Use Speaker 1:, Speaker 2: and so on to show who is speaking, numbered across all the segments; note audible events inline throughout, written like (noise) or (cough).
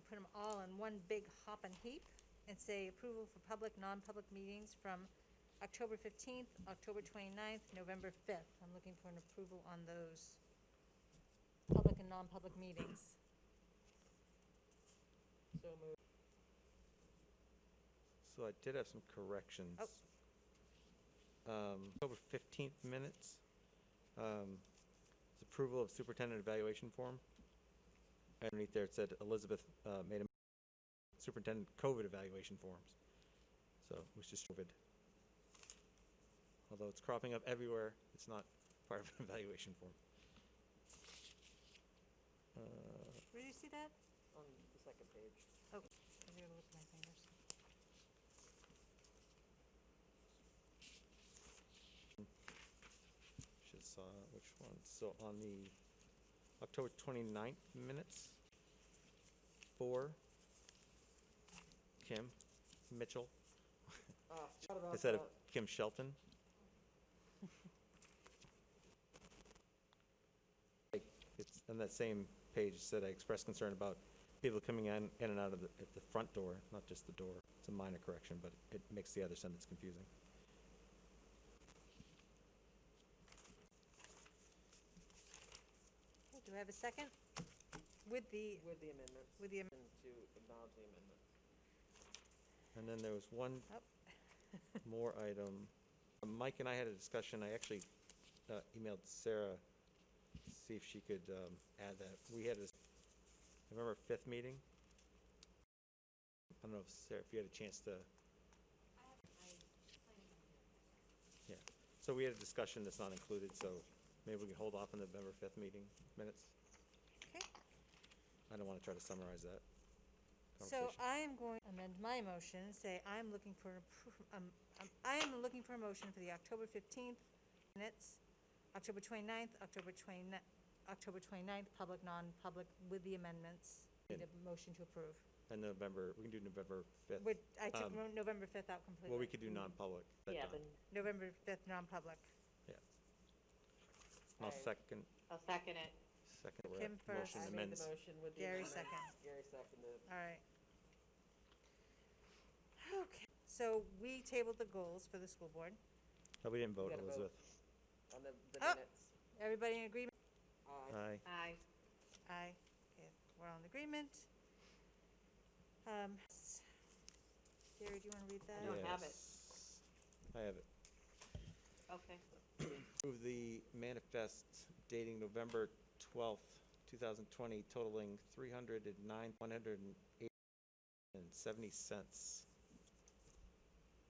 Speaker 1: put them all in one big hop and heap and say approval for public, non-public meetings from October fifteenth, October 29th, November fifth. I'm looking for an approval on those public and non-public meetings.
Speaker 2: So moved.
Speaker 3: So I did have some corrections. Um, October 15th minutes, um, it's approval of superintendent evaluation form. Underneath there, it said Elizabeth uh, made a superintendent COVID evaluation forms. So it was just COVID. Although it's cropping up everywhere, it's not part of an (laughs) evaluation form. Uh,
Speaker 1: Where do you see that?
Speaker 2: On the second page.
Speaker 1: Oh, I gotta look at my fingers.
Speaker 3: Should saw which one, so on the October 29th minutes, for Kim Mitchell,
Speaker 2: Ah, forgot about
Speaker 3: instead of
Speaker 2: that.
Speaker 3: Kim Shelton. Like, It's on that same page, it said I expressed concern about people coming in, in and out of the, at the front door, not just the door. It's a minor correction, but it makes the other sentence confusing.
Speaker 1: Okay, Do I have a second? With the,
Speaker 2: With the amendments.
Speaker 1: with the, am-
Speaker 2: And to acknowledge the amendment.
Speaker 3: And then there was one
Speaker 1: oh,
Speaker 3: more item. Uh, Mike and I had a discussion, I actually uh, emailed Sarah, to see if she could um, add that. We had a, I remember our fifth meeting? I don't know if Sarah, if you had a chance to. Yeah, so we had a discussion that's not included, so maybe we can hold off on the November fifth meeting minutes.
Speaker 1: okay.
Speaker 3: I don't want to try to summarize that
Speaker 1: So uh,
Speaker 3: conversation.
Speaker 1: I am going to amend my motion and say I'm looking for, an appro- um, um, I am looking for a motion for the October 15th minutes, October 29th, October 29th, October 29th, public, non-public, with the amendments. Need a motion to approve.
Speaker 3: And November, we can do November fifth.
Speaker 1: Which, I took
Speaker 3: Um,
Speaker 1: Mo- November 5th out completely.
Speaker 3: Well, we could do non-public. that
Speaker 4: Yeah,
Speaker 3: time.
Speaker 4: then
Speaker 1: November 5th, non-public.
Speaker 3: I'll
Speaker 2: I-
Speaker 3: second,
Speaker 4: I'll second it.
Speaker 3: second
Speaker 1: Kim
Speaker 3: re-
Speaker 1: first.
Speaker 3: motion
Speaker 2: I made the
Speaker 3: amends.
Speaker 2: motion with the
Speaker 1: Gary
Speaker 2: amendment.
Speaker 1: second.
Speaker 2: Gary seconded.
Speaker 1: All right. Okay, so we tabled the goals for the school board.
Speaker 3: Oh, we didn't vote,
Speaker 2: gotta vote.
Speaker 3: Elizabeth.
Speaker 2: On the, the
Speaker 1: Oh.
Speaker 2: minutes.
Speaker 1: Everybody in agreement?
Speaker 2: Aye.
Speaker 3: Aye.
Speaker 4: Aye.
Speaker 1: Aye. Okay, we're all in agreement. Um, s- Gary, do you want to read that?
Speaker 4: don't have it.
Speaker 3: Yes. I have it.
Speaker 4: Okay.
Speaker 3: Approve the manifest dating November twelfth, two thousand twenty totaling three hundred and nine, one hundred and eight and seventy cents.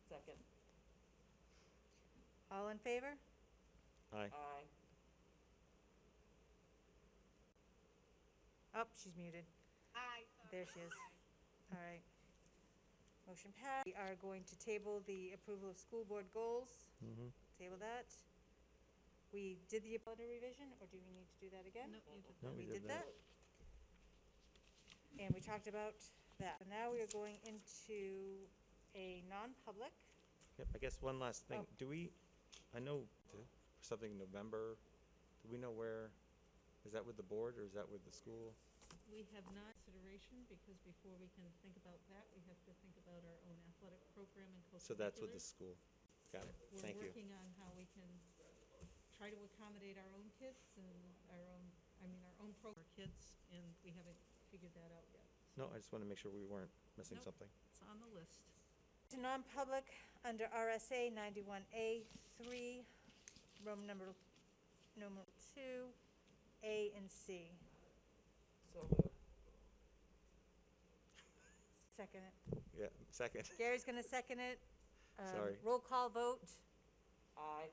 Speaker 2: Second.
Speaker 1: All in favor?
Speaker 3: Aye.
Speaker 2: Aye.
Speaker 1: Oh, she's muted.
Speaker 4: Aye.
Speaker 1: There she is. All right. Motion passed. We are going to table the approval of school board goals.
Speaker 3: Mhm.
Speaker 1: Table that. We did the calendar revision, or do we need to do that again?
Speaker 3: No,
Speaker 1: We did that. And we talked about that. So Now we are going into a non-public.
Speaker 3: Yep, I guess one last thing.
Speaker 1: Oh.
Speaker 3: Do we, I know something in November, do we know where, is that with the board or is that with the school?
Speaker 5: We have not consideration, because before we can think about that, we have to think about our own athletic program and co-curricular.
Speaker 3: So that's with the school. Got it. Thank
Speaker 5: We're
Speaker 3: you.
Speaker 5: working on how we can try to accommodate our own kids and our own, I mean, our own pro, our kids, and we haven't figured that out yet.
Speaker 3: No,
Speaker 5: So
Speaker 3: I just want to make sure we weren't missing
Speaker 5: Nope.
Speaker 3: something.
Speaker 5: It's on the list.
Speaker 1: To non-public under RSA 91A 3, Roman number, number 2, A and C.
Speaker 2: So moved.
Speaker 1: Second it.
Speaker 3: Yeah, second.
Speaker 1: Gary's going to second it. Um,
Speaker 3: Sorry.
Speaker 1: Roll call vote.
Speaker 2: Aye.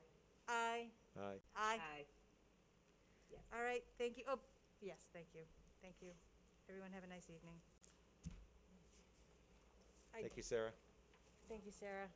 Speaker 1: Aye.
Speaker 3: Aye.
Speaker 1: Aye.
Speaker 4: Aye.
Speaker 1: All right, thank you. Oh, yes, thank you. Thank you. Everyone have a nice evening. I-
Speaker 3: Thank you, Sarah.
Speaker 1: Thank you, Sarah.